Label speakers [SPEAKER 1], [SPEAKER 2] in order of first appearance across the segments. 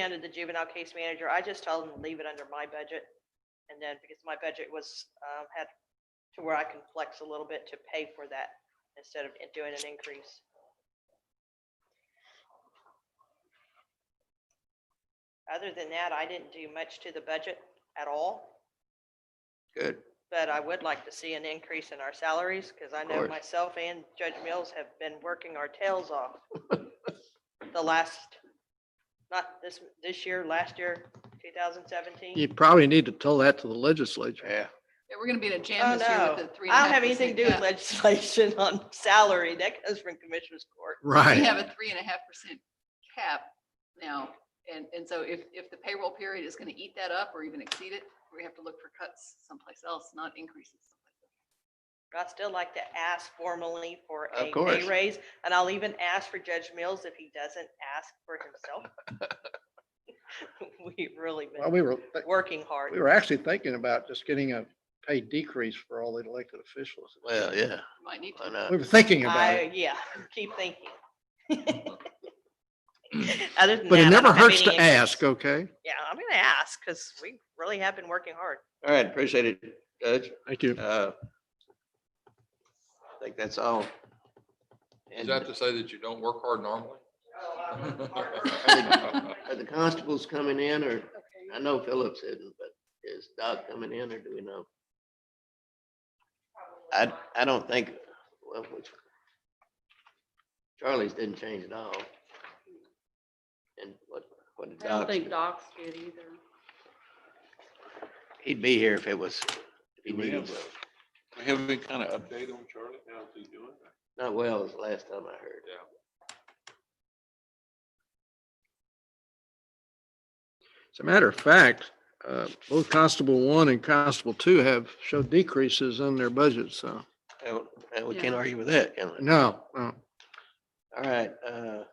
[SPEAKER 1] handed the juvenile case manager, I just told him to leave it under my budget. And then because my budget was, um, had to where I can flex a little bit to pay for that instead of it doing an increase. Other than that, I didn't do much to the budget at all.
[SPEAKER 2] Good.
[SPEAKER 1] But I would like to see an increase in our salaries because I know
[SPEAKER 2] course.
[SPEAKER 1] myself and Judge Mills have been working our tails off. The last, not this, this year, last year, two thousand seventeen.
[SPEAKER 2] You probably need to tell that to the legislature.
[SPEAKER 3] Yeah,
[SPEAKER 4] Yeah, we're gonna be in a
[SPEAKER 1] Oh,
[SPEAKER 4] jam this year
[SPEAKER 1] no.
[SPEAKER 4] with the three. and a
[SPEAKER 1] I don't
[SPEAKER 4] half
[SPEAKER 1] have anything to do with
[SPEAKER 4] percent
[SPEAKER 1] legislation on salary. That comes from commissioner's court.
[SPEAKER 4] cap. We
[SPEAKER 2] Right.
[SPEAKER 4] have a three and a half percent cap now, and, and so if, if the payroll period is gonna eat that up or even exceed it, we have to look for cuts someplace else, not increases.
[SPEAKER 1] I'd still like to ask formally for
[SPEAKER 2] Of
[SPEAKER 1] a
[SPEAKER 2] course.
[SPEAKER 1] pay raise, and I'll even ask for Judge Mills if he doesn't ask for himself. We've really
[SPEAKER 2] Well,
[SPEAKER 1] been
[SPEAKER 2] we were,
[SPEAKER 1] working hard.
[SPEAKER 2] we were actually thinking about just getting a pay decrease for all the elected officials.
[SPEAKER 3] well, yeah,
[SPEAKER 4] We Might need
[SPEAKER 3] I
[SPEAKER 4] to.
[SPEAKER 3] know.
[SPEAKER 2] We were thinking about
[SPEAKER 1] I,
[SPEAKER 2] it,
[SPEAKER 1] yeah, keep thinking. Other than
[SPEAKER 2] but
[SPEAKER 1] that,
[SPEAKER 2] it
[SPEAKER 1] I
[SPEAKER 2] never
[SPEAKER 1] don't have
[SPEAKER 2] hurts
[SPEAKER 1] any
[SPEAKER 2] to
[SPEAKER 1] issues.
[SPEAKER 2] ask, okay?
[SPEAKER 1] Yeah, I'm gonna ask, because we really have been working hard.
[SPEAKER 3] All right, appreciate it, Judge.
[SPEAKER 2] Thank you.
[SPEAKER 3] Uh, I think that's all.
[SPEAKER 5] Is
[SPEAKER 3] And
[SPEAKER 5] that to say that you don't work hard normally?
[SPEAKER 3] Are the constables coming in or, I know Phillips isn't, but is Doc coming in or do we know? I, I don't think, well, which, Charlie's didn't change at all. And what, what did
[SPEAKER 6] I don't
[SPEAKER 3] Doc,
[SPEAKER 6] think docs did either.
[SPEAKER 3] he'd be here if it was, if he
[SPEAKER 5] Do we
[SPEAKER 3] needed,
[SPEAKER 5] have-
[SPEAKER 3] Wells.
[SPEAKER 5] We have any kind of update on Charlie? How's he doing?
[SPEAKER 3] not Wells, last time I heard.
[SPEAKER 2] As a matter of fact, uh, both Constable One and Constable Two have showed decreases in their budgets, so,
[SPEAKER 3] And- And we can't
[SPEAKER 6] Yeah.
[SPEAKER 3] argue with that, can we?
[SPEAKER 2] no, no.
[SPEAKER 3] All right, uh.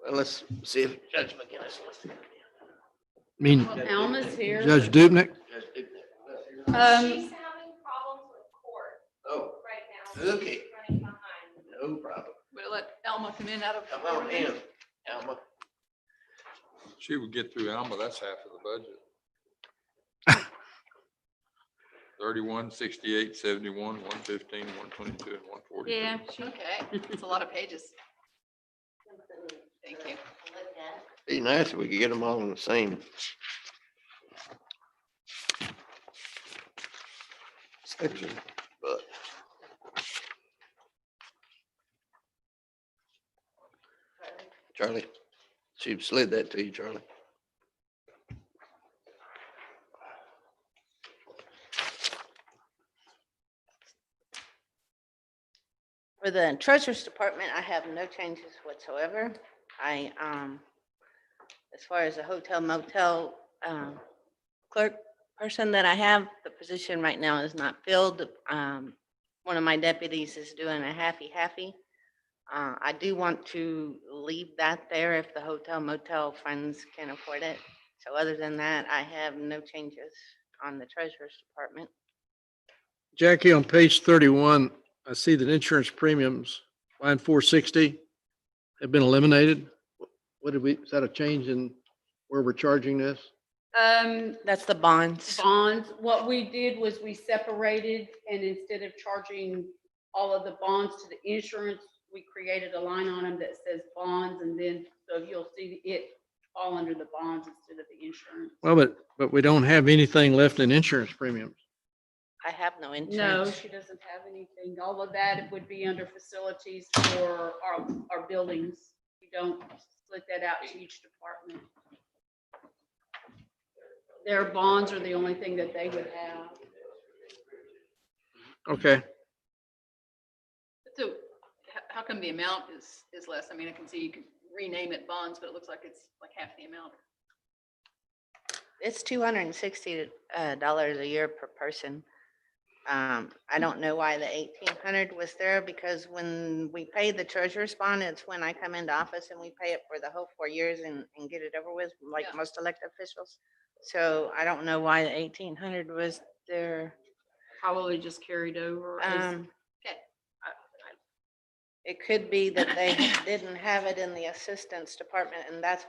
[SPEAKER 3] Well, let's see if Judge McGinnis wants to come in.
[SPEAKER 2] I mean,
[SPEAKER 6] Well, Alma's Uh, here.
[SPEAKER 2] Judge Dubnik,
[SPEAKER 3] Judge Dubnik, let's hear it.
[SPEAKER 4] Um,
[SPEAKER 7] She's having problems with court
[SPEAKER 3] Oh,
[SPEAKER 7] right now. She's
[SPEAKER 3] Okay.
[SPEAKER 7] Running behind.
[SPEAKER 3] no problem.
[SPEAKER 4] we'll let Alma come in out of.
[SPEAKER 3] Come on in, Alma.
[SPEAKER 5] She would get through Alma, that's half of the budget. Thirty-one, sixty-eight, seventy-one, one fifteen, one twenty-two, and one forty.
[SPEAKER 6] Yeah, she,
[SPEAKER 4] Okay, it's a lot of pages. Thank you.
[SPEAKER 3] Be nice if we could get them all on the same. Section, but. Charlie, she slid that to you, Charlie.
[SPEAKER 8] For the treasurer's department, I have no changes whatsoever. I, um, as far as the hotel motel, um, clerk person that I have, the position right now is not filled. Um, one of my deputies is doing a happy-happy. Uh, I do want to leave that there if the hotel motel funds can afford it. So other than that, I have no changes on the treasurer's department.
[SPEAKER 2] Jackie, on page thirty-one, I see that insurance premiums, line four sixty, have been eliminated. What did we, is that a change in where we're charging this?
[SPEAKER 6] um,
[SPEAKER 8] That's the bonds.
[SPEAKER 6] bonds, what we did was we separated and instead of charging all of the bonds to the insurance, we created a line on them that says bonds and then, so you'll see it all under the bonds instead of the insurance.
[SPEAKER 2] Well, but, but we don't have anything left in insurance premiums.
[SPEAKER 8] I have no
[SPEAKER 6] No,
[SPEAKER 8] insurance.
[SPEAKER 6] she doesn't have anything. All of that would be under facilities for our, our buildings. We don't split that out to each department. Their bonds are the only thing that they would have.
[SPEAKER 2] Okay,
[SPEAKER 4] So how, how come the amount is, is less? I mean, I can see you could rename it bonds, but it looks like it's like half the amount.
[SPEAKER 8] It's two hundred and sixty uh, dollars a year per person. Um,
[SPEAKER 4] Mm.
[SPEAKER 8] I don't know why the eighteen hundred was there, because when we pay the treasurer's bond, it's when I come into office and we pay it for the whole four years and, and get it over with, like
[SPEAKER 4] Yeah.
[SPEAKER 8] most elected officials. So I don't know why the eighteen hundred was there.
[SPEAKER 6] Probably just carried over. as-
[SPEAKER 8] Um,
[SPEAKER 4] Okay.
[SPEAKER 8] it could be that they didn't have it in the assistance department, and that's